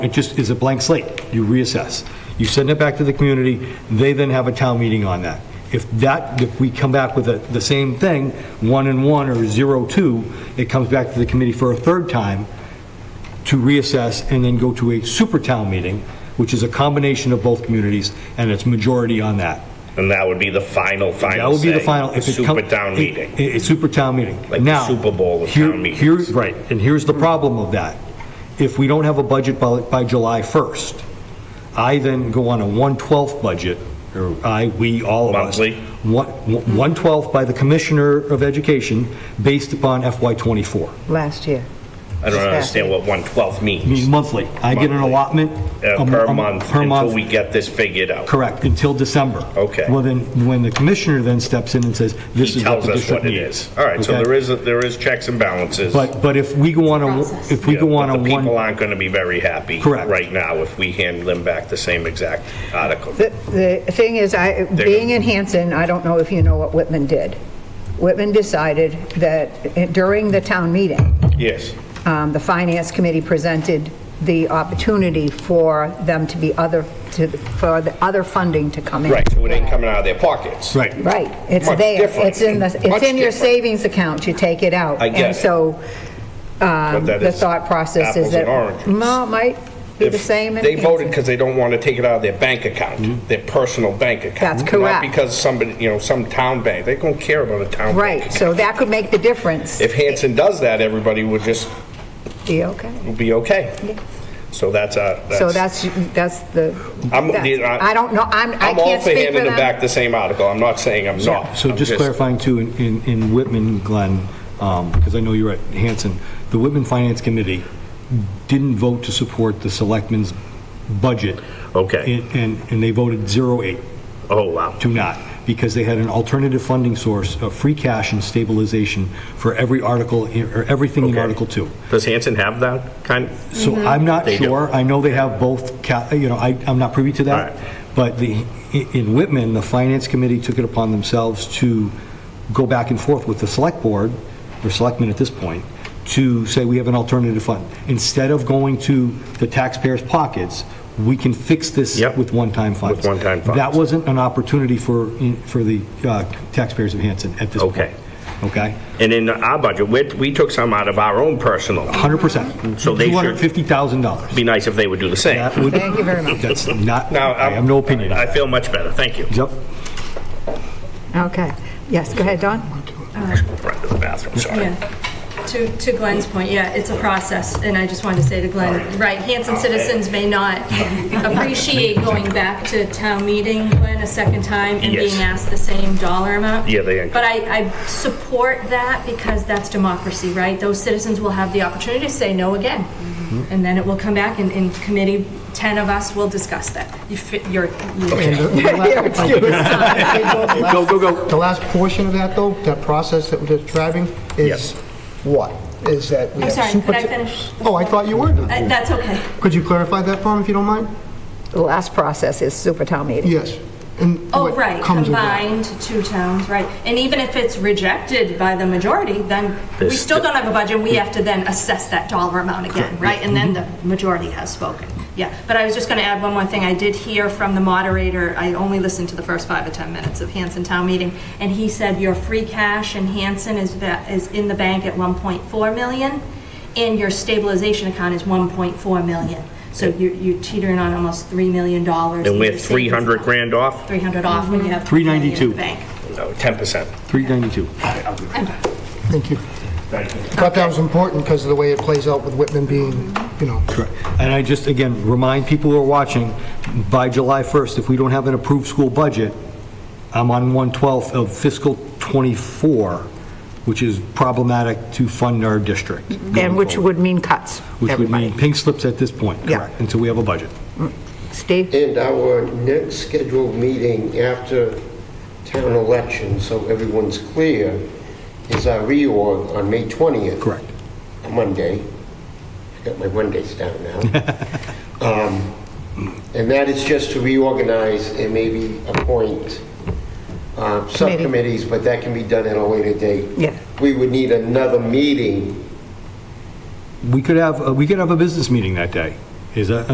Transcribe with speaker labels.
Speaker 1: It just is a blank slate. You reassess. You send it back to the community, they then have a town meeting on that. If that, if we come back with the- the same thing, one and one or zero two, it comes back to the committee for a third time to reassess and then go to a super town meeting, which is a combination of both communities, and it's majority on that.
Speaker 2: And that would be the final, final
Speaker 1: That would be the
Speaker 2: say,
Speaker 1: final. if it
Speaker 2: Super
Speaker 1: come-
Speaker 2: town
Speaker 1: it-
Speaker 2: meeting.
Speaker 1: it- It's super town meeting.
Speaker 2: Like the
Speaker 1: Now,
Speaker 2: Super Bowl of
Speaker 1: here-
Speaker 2: town meetings.
Speaker 1: here- Right, and here's the problem of that. If we don't have a budget by, by July 1st, I then go on a 1/12 budget, or I, we, all of us.
Speaker 2: Monthly?
Speaker 1: One- one 1/12 by the Commissioner of Education, based upon FY '24.
Speaker 3: last year.
Speaker 2: I don't understand what one twelfth
Speaker 1: I mean,
Speaker 2: means.
Speaker 1: monthly. I get an
Speaker 2: Monthly.
Speaker 1: allotment.
Speaker 2: Uh,
Speaker 1: a mo-
Speaker 2: per
Speaker 1: a mo-
Speaker 2: month,
Speaker 1: Per month.
Speaker 2: until we get this figured out.
Speaker 1: Correct, until December.
Speaker 2: Okay.
Speaker 1: Well, then, when the commissioner then steps in and says, this
Speaker 2: He
Speaker 1: is what
Speaker 2: tells
Speaker 1: the
Speaker 2: us
Speaker 1: district
Speaker 2: what it
Speaker 1: needs.
Speaker 2: is. All right, so
Speaker 1: Okay?
Speaker 2: there is, a- there is checks and balances.
Speaker 1: But, but if we go on a, if we
Speaker 2: Yeah,
Speaker 1: go on a
Speaker 2: but The people
Speaker 1: one,
Speaker 2: aren't going to be very happy.
Speaker 1: Correct.
Speaker 2: Right now, if we hand them back the same exact article.
Speaker 3: The the thing is, I, being in Hanson, I don't know if you know what Whitman did. Whitman decided that eh, during the town meeting,
Speaker 2: Yes.
Speaker 3: um, the Finance Committee presented the opportunity for them to be other, to, for the other funding to come in.
Speaker 2: Right, so it ain't coming out of their pockets.
Speaker 1: right,
Speaker 3: Right, it's
Speaker 2: Much
Speaker 3: there,
Speaker 2: different.
Speaker 3: it's in the,
Speaker 2: Much
Speaker 3: it's in your
Speaker 2: different.
Speaker 3: savings account, you take it out.
Speaker 2: I get it.
Speaker 3: And so,
Speaker 2: But
Speaker 3: um,
Speaker 2: that
Speaker 3: the
Speaker 2: is
Speaker 3: thought process
Speaker 2: apples
Speaker 3: is
Speaker 2: and
Speaker 3: that.
Speaker 2: oranges.
Speaker 3: No, it might be the
Speaker 2: If
Speaker 3: same in
Speaker 2: They voted
Speaker 3: Hanson.
Speaker 2: because they don't want to take it out of their bank
Speaker 1: Mm-hmm.
Speaker 2: account, their personal bank account.
Speaker 3: That's
Speaker 2: Not
Speaker 3: correct.
Speaker 2: because somebody, you know, some town bank, they don't care about a town bank.
Speaker 3: Right, so that could make the difference.
Speaker 2: If Hanson does that, everybody would just
Speaker 3: Be okay.
Speaker 2: be okay. So that's a,
Speaker 3: So
Speaker 2: that's,
Speaker 3: that's, that's the,
Speaker 2: I'm-
Speaker 3: that's- I don't know, I'm, I
Speaker 2: I'm all
Speaker 3: can't
Speaker 2: for
Speaker 3: speak for
Speaker 2: handing them back
Speaker 3: them.
Speaker 2: the same article. I'm not saying I'm not.
Speaker 1: So
Speaker 2: I'm
Speaker 1: just clarifying too, in- in, in Whitman, Glenn, because I know you're at Hanson, the Whitman Finance Committee didn't vote to support the selectmen's budget.
Speaker 2: Okay.
Speaker 1: And- And, and they voted 08
Speaker 2: Oh, wow.
Speaker 1: to not, because they had an alternative funding source of free cash and stabilization for every article, in- or everything in
Speaker 2: Okay.
Speaker 1: Article 2.
Speaker 2: Does Hanson have that kind? of-
Speaker 1: So I'm not
Speaker 2: They do.
Speaker 1: sure, I know they have both, ca- you know, I, I'm not privy to that.
Speaker 2: Alright.
Speaker 1: But the, in Whitman, the finance committee took it upon themselves to go back and forth with the select board, or selectmen at this point, to say we have an alternative fund. Instead of going to the taxpayers' pockets, we can fix this
Speaker 2: Yep.
Speaker 1: with one-time funds.
Speaker 2: one-time funds.
Speaker 1: That wasn't an opportunity for, for the uh, taxpayers of Hanson at this point.
Speaker 2: Okay.
Speaker 1: Okay?
Speaker 2: And in our budget, we, we took some out of our own personal.
Speaker 1: 100%.
Speaker 2: So they should-
Speaker 1: $250,000.
Speaker 2: Be nice if they would do the
Speaker 1: That
Speaker 2: same.
Speaker 1: would-
Speaker 3: Thank you very much.
Speaker 1: That's not,
Speaker 2: Now,
Speaker 1: I
Speaker 2: I'm-
Speaker 1: have no opinion on
Speaker 2: I
Speaker 1: it.
Speaker 2: feel much better, thank you.
Speaker 1: Yep.
Speaker 3: Okay, yes, go ahead, Don.
Speaker 2: Run to the bathroom, sorry.
Speaker 4: Yeah. To, to Glenn's point, yeah, it's a process, and I just wanted to say to Glenn, right, Hanson citizens may not appreciate going back to town meeting, Glenn, a second time and
Speaker 2: Yes.
Speaker 4: being asked the same dollar amount.
Speaker 2: Yeah, they-
Speaker 4: But I, I support that because that's democracy, right? Those citizens will have the opportunity to say no again.
Speaker 2: Mm-hmm.
Speaker 4: And then it will come back and in committee, 10 of us will discuss that. You fit, you're, you
Speaker 5: Go, go, go. The last portion of that, though, that process that we're describing
Speaker 2: Yes.
Speaker 5: is what? Is that
Speaker 4: I'm
Speaker 5: we have
Speaker 4: sorry,
Speaker 5: super...
Speaker 4: could I finish?
Speaker 5: Oh, I thought you were done.
Speaker 4: Uh, That's okay.
Speaker 5: Could you clarify that for me, if you don't mind?
Speaker 3: The last process is super town meeting.
Speaker 5: Yes. And
Speaker 4: Oh,
Speaker 5: what
Speaker 4: right,
Speaker 5: comes with that.
Speaker 4: combined two towns, right. And even if it's rejected by the majority, then we
Speaker 2: This-
Speaker 4: still don't have a budget, we have to then assess that dollar amount again, right? And then the majority has spoken, yeah. But I was just gonna add one more thing, I did hear from the moderator, I only listened to the first five or 10 minutes of Hanson Town Meeting, and he said your free cash in Hanson is, va- is in the bank at 1.4 million, and your stabilization account is 1.4 million. So you're you're teetering on almost $3 million.
Speaker 2: And we're 300 grand off?
Speaker 4: 300 off when you have.
Speaker 1: 392.
Speaker 4: money in the bank.
Speaker 2: No, 10%.
Speaker 1: 392.
Speaker 5: Thank you. Thought that was important because of the way it plays out with Whitman being, you know...
Speaker 1: Correct. And I just, again, remind people who are watching, by July 1st, if we don't have an approved school budget, I'm on 1/12 of fiscal '24, which is problematic to fund our district.
Speaker 3: Mm-hmm. And which would mean cuts,
Speaker 1: Which would mean
Speaker 3: everybody.
Speaker 1: pink slips at this point,
Speaker 3: Yeah.
Speaker 1: correct, until we have a budget.
Speaker 3: Steve?
Speaker 6: And our next scheduled meeting after town election, so everyone's clear, is our reorg on May 20th.
Speaker 1: Correct.
Speaker 6: Monday. Got my Mondays down now. Um, And that is just to reorganize and maybe appoint uh, subcommittees, but that can be done at a later date.
Speaker 3: Yeah.
Speaker 6: We would need another meeting
Speaker 1: We could have, uh, we could have a business meeting that day. Is that,